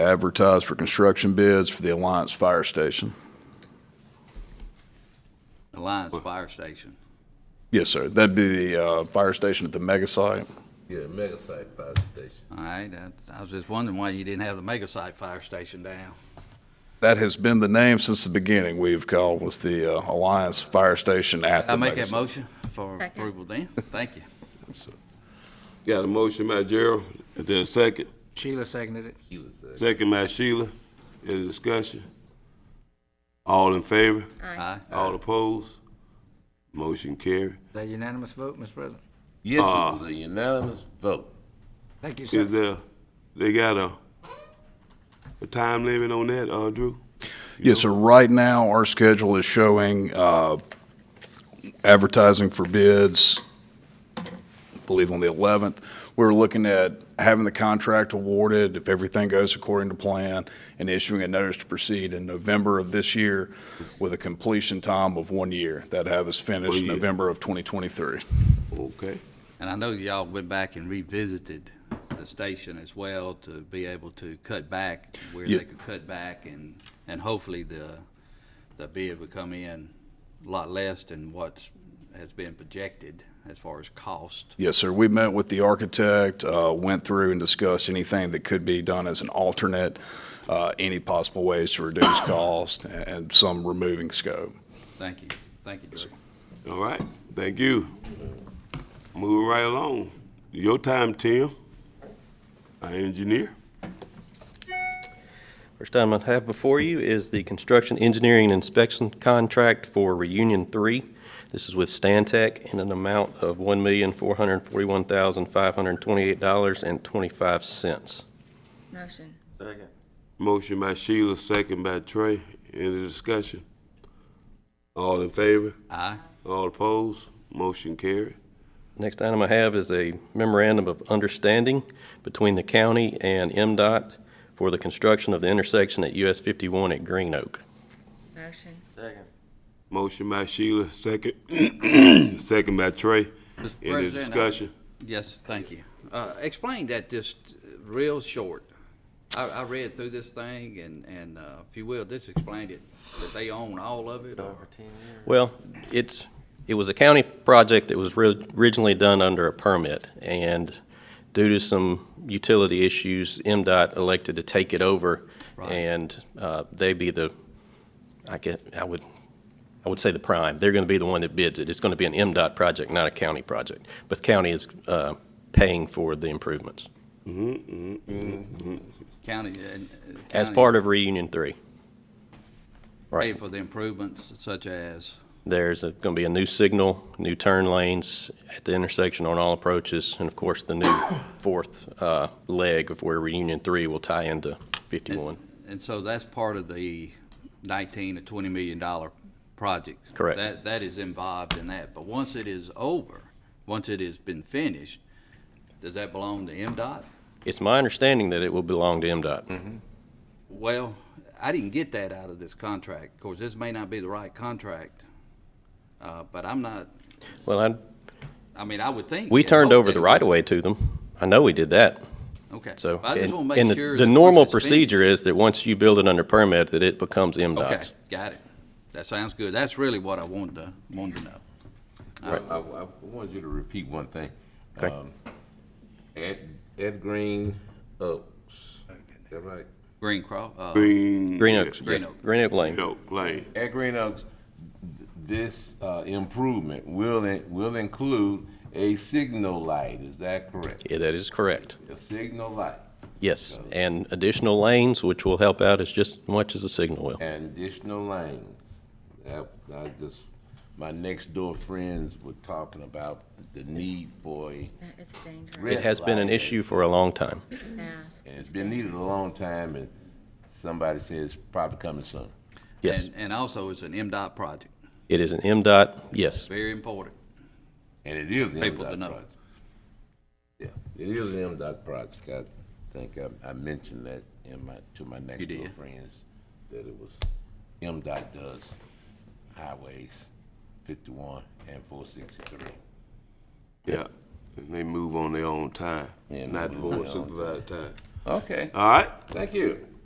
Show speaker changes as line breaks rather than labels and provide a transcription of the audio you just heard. advertise for construction bids for the Alliance Fire Station.
Alliance Fire Station.
Yes, sir. That'd be the uh, fire station at the mega site.
Yeah, mega site fire station.
All right, I, I was just wondering why you didn't have the mega site fire station down.
That has been the name since the beginning we've called was the uh, Alliance Fire Station at the
I make
mega
that
site.
motion for
Second.
approval then. Thank you.
Got a motion by Gerald, is there a second?
Sheila seconded it.
He was, uh,
Second by Sheila, any discussion? All in favor?
Aye.
All opposed? Motion carry.
Is that unanimous vote, Mr. President?
Yes, it was a unanimous vote.
Thank you,
Is
sir.
there, they got a, a time limit on that, uh, Drew?
Yes, sir. Right now, our schedule is showing uh, advertising for bids, I believe on the 11th. We're looking at having the contract awarded, if everything goes according to plan, and issuing a notice to proceed in November of this year with a completion time of one year. That'd have us finished
One year.
November of 2023.
Okay,
And I know y'all went back and revisited the station as well to be able to cut back where
Yeah.
they could cut back and, and hopefully the, the bid would come in a lot less than what's, has been projected as far as cost.
Yes, sir. We met with the architect, uh, went through and discussed anything that could be done as an alternate, uh, any possible ways to reduce cost and- and some removing scope.
Thank you. Thank you, Drew.
all right, thank you. Move right along. Your time, Tim, our engineer.
First item I have before you is the construction engineering inspection contract for Reunion Three. This is with Stantec in an amount of one million, four hundred and forty-one thousand, five hundred and twenty-eight dollars and twenty-five cents.
Motion.
Motion by Sheila, second by Trey. Any discussion? All in favor?
Aye.
All opposed? Motion carried.
Next item I have is a memorandum of understanding between the county and MDOT for the construction of the intersection at US fifty-one at Green Oak.
Motion.
Motion by Sheila, second, second by Trey.
Mr.
Any
President, I-
discussion?
Yes, thank you. Uh, Explain that just real short. I, I read through this thing and, and uh, if you will, just explain it, that they own all of it or?
Well, it's, it was a county project that was ri- originally done under a permit, and due to some utility issues, MDOT elected to take it over,
Right.
and uh, they be the, I get, I would, I would say the prime. They're going to be the one that bids it. It's going to be an MDOT project, not a county project. But the county is uh, paying for the improvements
County. uh, and-
as
county
part of Reunion Three.
Pay
Right.
for the improvements such as,
There's going to be a new signal, new turn lanes at the intersection on all approaches, and of course, the new fourth uh, leg of where Reunion 3 will tie into 51.
and so that's part of the nineteen to twenty million dollar project.
Correct.
That, that is involved in that. But once it is over, once it has been finished, does that belong to MDOT?
It's my understanding that it will belong to
Mm-hmm.
MDOT.
Well, I didn't get that out of this contract. Of course, this may not be the right contract, uh, but I'm not,
Well, I-
I mean, I would think.
we
and
turned
hope
over
that
the
it-
right-of-way to them. I know we did that,
Okay.
so.
I just
and-
want to
and
make
the-
sure. that
The
once
normal
it's
procedure
finished-
is that once you build it under permit, that it becomes
Okay,
MDOT's.
got it. That sounds good. That's really what I wanted to, wanted to know.
I, I, I wanted you to repeat one thing.
Okay.
Um, Ed, Ed Green Oaks, is that right?
Green Cross, uh,
Green.
Green Oaks,
Green
yes,
Oak.
Green Oak Lane.
Green Oak Lane.
At Green Oaks, th- this uh, improvement will, in- will include a signal light, is that correct?
Yeah, That is correct.
A signal light
Yes,
Um,
and additional lanes, which will help out as just much as the signal will.
and additional lanes. That, I just, my next door friends were talking about the need for a,
That is dangerous.
Red.
It has been an
light.
issue for a long time.
Yeah.
and it's been needed a long time, and somebody says probably coming soon.
Yes,
and, and also it's an MDOT project.
it is an MDOT, yes.
Very important.
And it is an
People to
MDOT
know.
project. Yeah, it is an MDOT project. I think I, I mentioned that in my, to my next door
did.
friends, that it was, MDOT does highways fifty-one and four sixty-three.
Yeah, and they move on their own time,
Yeah,
not the
move on
board
their own
supervisor time.
Okay,
All right?
thank you.